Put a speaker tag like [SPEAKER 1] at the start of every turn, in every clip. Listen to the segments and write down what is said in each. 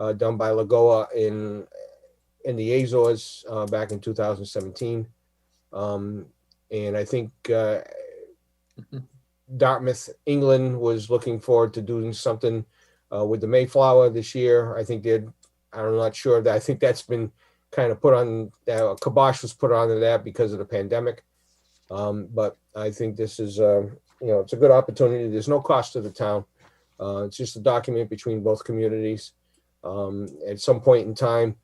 [SPEAKER 1] uh, done by Lagoa in, in the Azores, uh, back in 2017. Um, and I think, uh, Dartmouth, England was looking forward to doing something, uh, with the Mayflower this year. I think they'd, I'm not sure that, I think that's been kind of put on, uh, kibosh was put onto that because of the pandemic. Um, but I think this is, uh, you know, it's a good opportunity. There's no cost to the town. Uh, it's just a document between both communities. Um, at some point in time,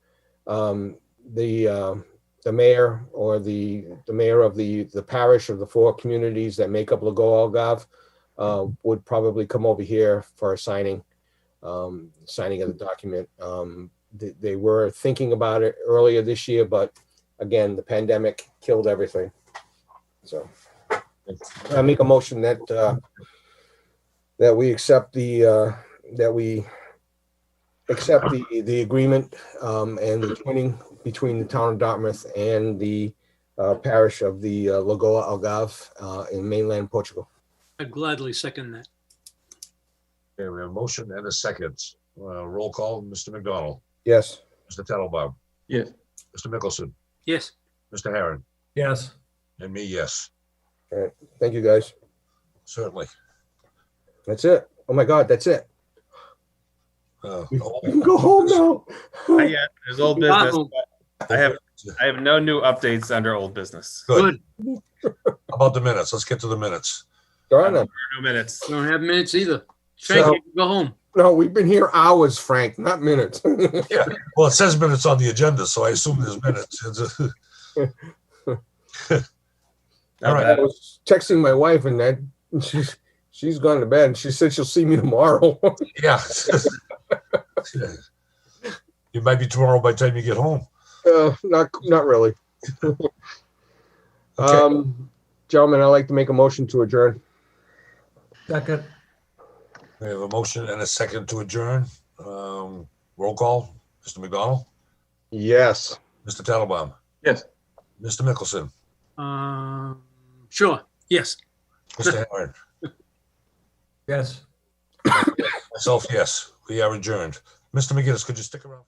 [SPEAKER 1] um, the, uh, the mayor or the, the mayor of the, the parish of the four communities that make up Lago Algarve, uh, would probably come over here for a signing, um, signing of the document. Um, they, they were thinking about it earlier this year, but again, the pandemic killed everything. So I make a motion that, uh, that we accept the, uh, that we accept the, the agreement, um, and the twinning between the town of Dartmouth and the, uh, parish of the uh, Lagoa Algarve, uh, in mainland Portugal.
[SPEAKER 2] I'd gladly second that.
[SPEAKER 3] Okay, we have a motion and a second. Uh, roll call, Mr. McDonald,
[SPEAKER 1] Yes.
[SPEAKER 3] Mr. Tattelbaum.
[SPEAKER 4] Yes.
[SPEAKER 3] Mr. Mickelson,
[SPEAKER 2] Yes,
[SPEAKER 3] Mr. Harron,
[SPEAKER 4] Yes.
[SPEAKER 3] and me, yes,
[SPEAKER 1] Thank you, guys.
[SPEAKER 3] certainly.
[SPEAKER 1] That's it. Oh my God, that's it.
[SPEAKER 3] Uh,
[SPEAKER 1] You can go home now.
[SPEAKER 5] Not yet. There's old business.
[SPEAKER 2] Wow.
[SPEAKER 5] but I have I have no new updates under old business.
[SPEAKER 3] Good.
[SPEAKER 2] good.
[SPEAKER 3] How About the minutes, let's get to the minutes.
[SPEAKER 1] Darn it.
[SPEAKER 5] No minutes.
[SPEAKER 2] Don't have minutes either. Frank,
[SPEAKER 1] So-
[SPEAKER 2] you can go home.
[SPEAKER 1] No, we've been here hours, Frank, not minutes.
[SPEAKER 3] Well, it says minutes on the agenda, so I assume there's minutes. It's a-
[SPEAKER 5] Not
[SPEAKER 3] All right.
[SPEAKER 1] I
[SPEAKER 5] bad.
[SPEAKER 1] was texting my wife and that she's, she's gone to bed and she said she'll see me tomorrow.
[SPEAKER 3] Yeah. It might be tomorrow by the time you get home.
[SPEAKER 1] Uh, not, not really.
[SPEAKER 3] Okay,
[SPEAKER 1] Um, gentlemen, I'd like to make a motion to adjourn.
[SPEAKER 4] Second.
[SPEAKER 3] we have a motion and a second to adjourn. Um, roll call, Mr. McDonald,
[SPEAKER 1] Yes.
[SPEAKER 3] Mr. Tattelbaum.
[SPEAKER 4] Yes.
[SPEAKER 3] Mr. Mickelson,
[SPEAKER 2] Um, sure, yes.
[SPEAKER 3] Mr. Harron,
[SPEAKER 4] Yes.
[SPEAKER 3] myself, yes, we are adjourned. Mr. McGinnis, could you stick around?